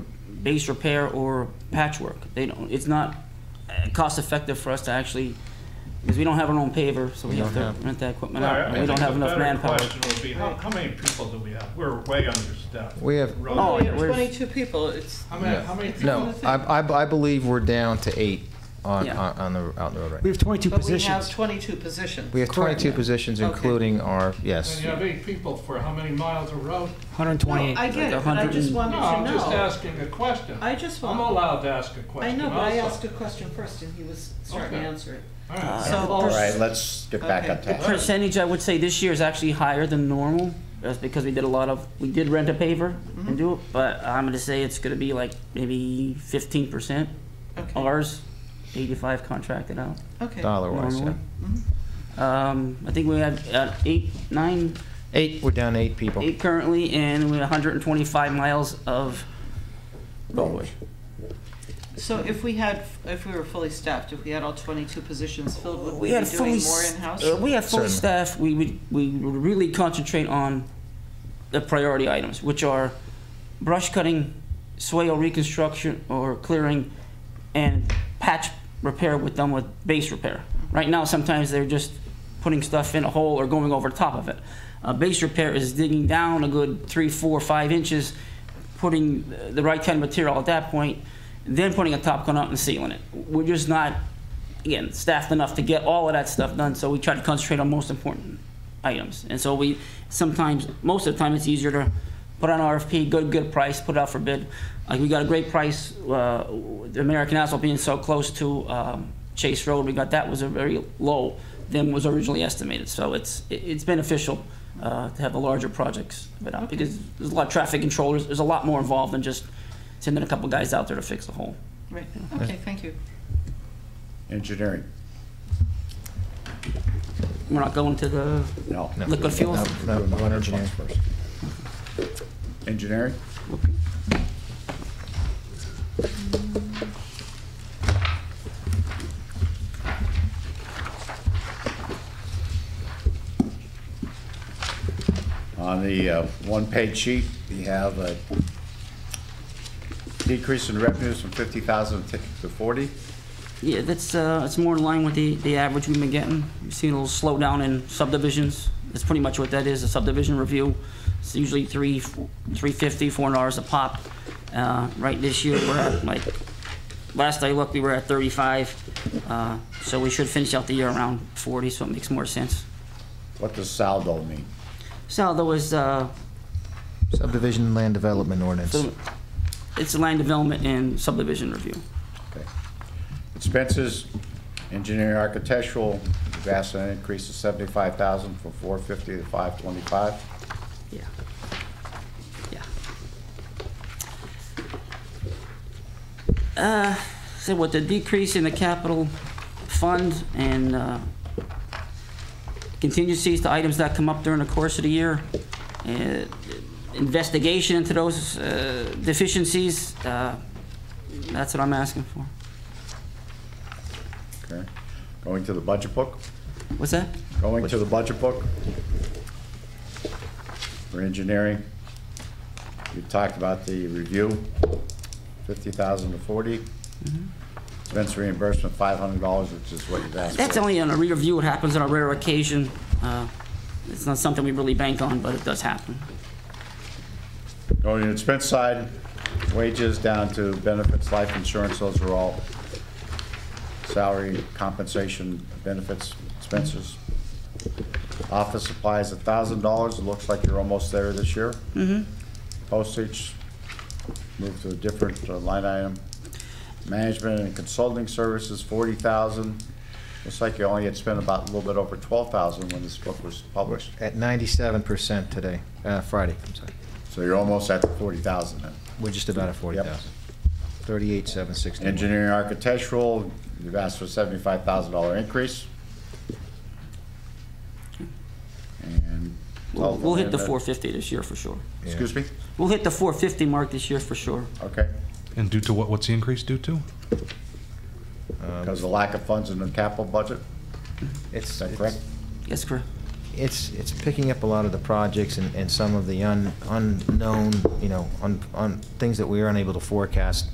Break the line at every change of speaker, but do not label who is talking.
base repair or patchwork. They don't, it's not uh, cost effective for us to actually, because we don't have our own paver, so we have to rent that equipment
All right,
out.
I
and We don't
think
have
the
enough
better
manpower.
Question would be, how, how many people do we have? We're way understaffed.
We have-
Really
Oh,
Oh,
yeah,
understaffed.
you have
where's-
22 people, it's,
How many, how many people?
No, I, I, I believe we're down to eight on,
Yeah.
on on the, out in the road right
We
now.
have 22
but we have
positions.
22 positions.
We have twenty-two positions,
Okay.
including our,
And
yes.
you have eight people for how many miles of road?
No,
128.
I get
Like
it, but I
100
just
and-
No,
wanted
I'm
to
just
know.
asking a question.
I just
I'm
want,
allowed to ask a
I
question
know, but I asked
also.
a question first and he was starting to
Okay.
answer it.
All right.
So-
All right, let's get back on
Okay.
task.
Percentage, I would say this year is actually higher than normal. That's because we did a lot of, we did rent a paver and do it, but I'm gonna say it's gonna be like maybe fifteen percent.
Okay,
Ours, eighty-five contracted out.
okay.
Dollar-wise, yeah.
Normally. Um, I think we have uh, eight, nine,
Eight, we're down to eight people.
eight currently, and we have 125 miles of roadway.
So if we had, if we were fully staffed, if we had all 22 positions filled, would we
We
be
had fully,
doing more
s-
in-house?
uh, we have fully
Certainly.
staffed, we would, we would really concentrate on the priority items, which are brush cutting, swale reconstruction or clearing, and patch repair with them with base repair.
Mm-hmm.
Right now, sometimes they're just putting stuff in a hole or going over top of it. Uh, base repair is digging down a good three, four, five inches, putting the- the right kind of material at that point, then putting a top coat out and sealing it. We're just not, again, staffed enough to get all of that stuff done, so we try to concentrate on most important items. And so we, sometimes, most of the time, it's easier to put on RFP, good, good price, put it out for bid. Like, we got a great price, uh, the American Asphalt being so close to, um, Chase Road, we got, that was a very low than was originally estimated. So it's, it- it's beneficial, uh, to have the larger projects, but, uh, because there's a lot of traffic controllers, there's a lot more involved than just sending a couple guys out there to fix the hole.
Right, okay, thank you.
Engineering,
We're not going to the,
no.
No.
Liquid fuels?
No, no, one engineer.
first. Engineering? On the uh, one-page sheet, we have a decrease in revenues from 50,000 to 40.
yeah, that's, uh, it's more in line with the, the average we've been getting. We've seen a little slowdown in subdivisions. That's pretty much what that is, a subdivision review. It's usually three, three fifty, four hundred dollars a pop. Uh, right this year, we're at like, last I looked, we were at thirty-five. Uh, so we should finish out the year around forty, so it makes more sense.
What does saldo mean?
Saldo is, uh,
Subdivision and land development ordinance.
so it's land development and subdivision review.
Okay. Expenses, engineering architectural, vast an increase of seventy-five thousand from four fifty to five twenty-five.
Yeah. Yeah. Uh, so with the decrease in the capital fund and, uh, contingencies to items that come up during the course of the year, uh, investigation into those, uh, deficiencies, uh, that's what I'm asking for.
Okay. Going to the budget book,
What's that?
going to the budget book. For engineering, we talked about the review, fifty thousand to forty. Expense reimbursement, five hundred dollars, which is what you've asked for.
That's only on a rare review, it happens on a rare occasion. Uh, It's not something we really bank on, but it does happen.
Going to the expense side, wages down to benefits, life insurance, those are all salary, compensation, benefits, expenses. Office supplies, a thousand dollars, it looks like you're almost there this year. Mm-hmm. Postage, move to a different uh, line item. Management and consulting services, forty thousand. Looks like you only had spent about a little bit over twelve thousand when this book was published.
At ninety-seven percent today, uh, Friday, I'm sorry.
So you're almost at forty thousand then.
We're just about at forty thousand. Thirty-eight, seven sixty-one.
Engineering architectural, you've asked for seventy-five thousand dollar increase. And. Oh, uh,
We'll, we'll hit the 450 this year for sure.
Excuse me?
We'll hit the 450 mark this year for sure.
Okay,
And due to what, what's the increase due to?
because of lack of funds in the capital budget,
It's,
is that correct?
Yes, correct.
it's, it's picking up a lot of the projects and, and some of the un, unknown, you know, un, un, things that we are unable to forecast